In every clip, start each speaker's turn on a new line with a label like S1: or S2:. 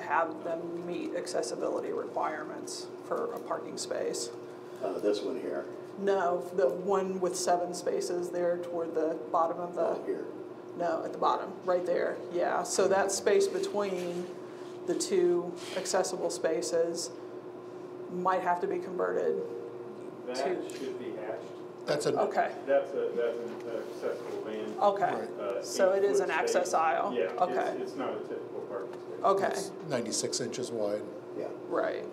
S1: have them meet accessibility requirements for a parking space.
S2: Uh, this one here,
S1: No, the one with seven spaces there toward the bottom of the.
S2: uh, here.
S1: No, at the bottom, right there, yeah. So that space between the two accessible spaces might have to be converted.
S3: That
S1: Two.
S3: should be hashed.
S4: That's a,
S1: Okay,
S3: That's a, that's an accessible van.
S1: okay.
S4: Right.
S3: uh,
S1: So it is an
S3: eight-foot space.
S1: access aisle?
S3: Yeah,
S1: Okay.
S3: it's, it's not a typical parking space.
S1: Okay,
S4: it's 96 inches wide.
S2: Yeah,
S1: right,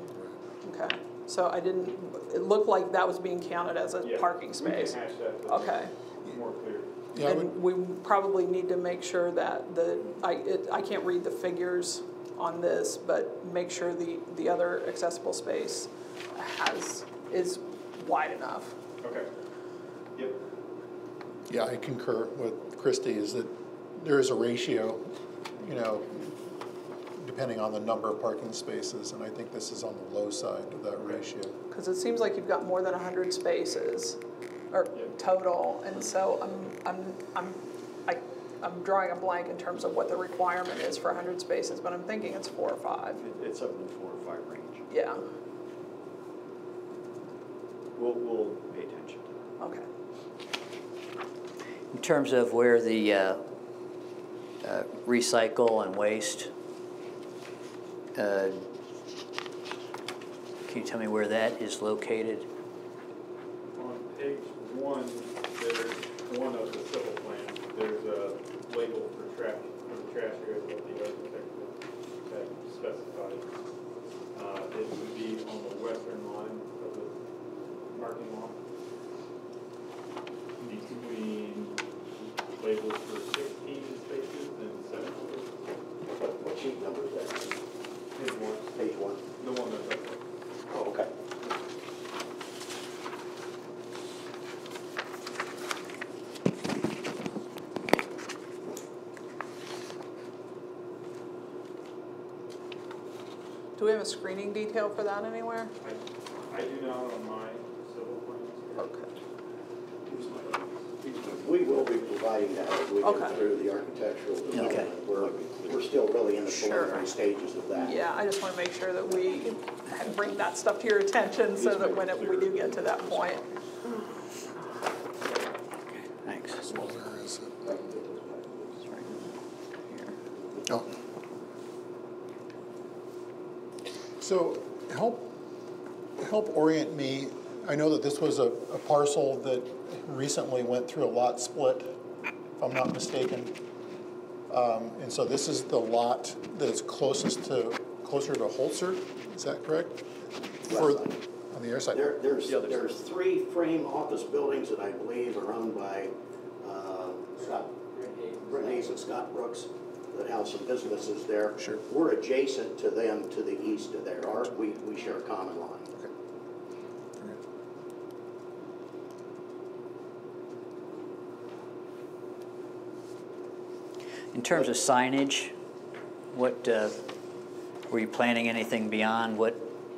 S1: okay. So I didn't, it looked like that was being counted as a
S3: Yeah,
S1: parking space.
S3: We can hash that. but
S1: Okay.
S3: it's More clear.
S4: Yeah, I would,
S1: And we probably need to make sure that the, I, it, I can't read the figures on this, but make sure the, the other accessible space has, is wide enough.
S3: Okay. Yep.
S4: yeah, I concur with Christie is that there is a ratio, you know, depending on the number of parking spaces, and I think this is on the low side of that ratio.
S1: Because it seems like you've got more than hundred spaces, or
S3: Yeah.
S1: total, and so I'm, I'm, I'm, I, I'm drawing a blank in terms of what the requirement is for hundred spaces, but I'm thinking it's four or five,
S5: It- It's up in the four or five range.
S1: yeah,
S5: We'll, we'll pay attention to that.
S1: okay.
S6: In terms of where the uh, uh, recycle and waste, uh, can you tell me where that is located?
S3: On page one, there's one of the civil plans, there's a label for trash, for trash area that the architect had specified. Uh, it would be on the western line of the parking lot. Between labels for sixteen spaces and seventeen.
S2: what, what sheet number is that?
S3: Here's one,
S2: Page one.
S3: the one that's up there.
S2: Oh, okay.
S1: Do we have a screening detail for that anywhere?
S3: I, I do not on my civil plans.
S1: Okay.
S2: We will be providing that as we
S1: Okay.
S2: get through the architectural
S6: Okay.
S2: development. We're, we're still really in the
S1: Sure.
S2: preliminary stages of that.
S1: Yeah, I just want to make sure that we bring that stuff to your attention so that when it- we do get to that point.
S6: Thanks.
S4: Where is it?
S6: It's right here.
S4: Oh. So help, help orient me. I know that this was a a parcel that recently went through a lot split, if I'm not mistaken. Um, And so this is the lot that is closest to, closer to Holzer, is that correct? For-
S2: Left side.
S4: On the other side?
S2: There, there's,
S5: The other side.
S2: there's three frame office buildings that I believe are owned by, uh, Scott, Brent Hayes and Scott Brooks, that have some businesses there.
S4: Sure.
S2: We're adjacent to them to the east of there, or we, we share a common line.
S4: Okay. Okay.
S6: In terms of signage, what, uh, were you planning anything beyond what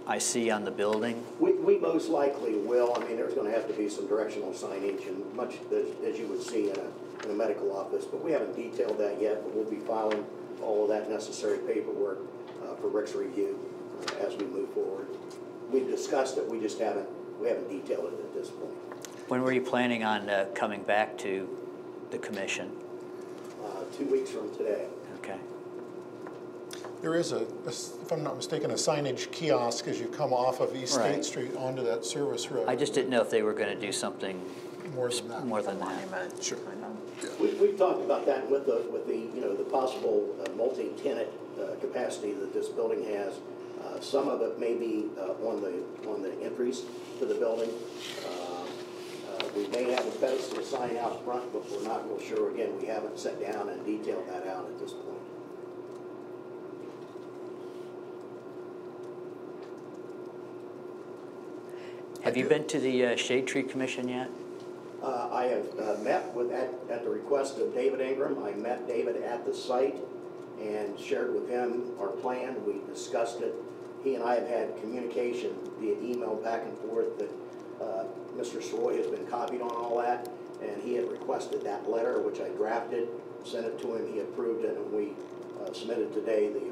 S6: I see on the building?
S2: We, we most likely will, I mean, there's gonna have to be some directional signage and much, as, as you would see in a, in a medical office, but we haven't detailed that yet, but we'll be filing all of that necessary paperwork, uh, for Rick's review uh, as we move forward. We've discussed it, we just haven't, we haven't detailed it at this point.
S6: When were you planning on uh, coming back to the commission?
S2: Uh, two weeks from today,
S6: Okay.
S4: There is a, a s- if I'm not mistaken, a signage kiosk as you come off of East State
S6: Right.
S4: Street onto that service road.
S6: I just didn't know if they were going to do something
S4: More than that.
S6: more than that.
S1: Monument,
S4: Sure.
S1: kind of.
S2: We, we've talked about that with the, with the, you know, the possible uh, multi-tenant uh, capacity that this building has. Uh, Some of it may be uh, on the, on the entries to the building. Uh, uh, We may have a pedestal sign out front, but we're not real sure. Again, we haven't sat down and detailed that out at this point.
S6: Have you
S4: do.
S6: been to the uh, Shade Tree Commission yet?
S2: Uh, I have uh, met with, at, at the request of David Ingram, I met David at the site and shared with him our plan, we discussed it. He and I have had communication via email back and forth that, uh, Mr. Sroy has been copied on all that, and he had requested that letter, which I drafted, sent it to him, he approved it, and we uh, submitted today the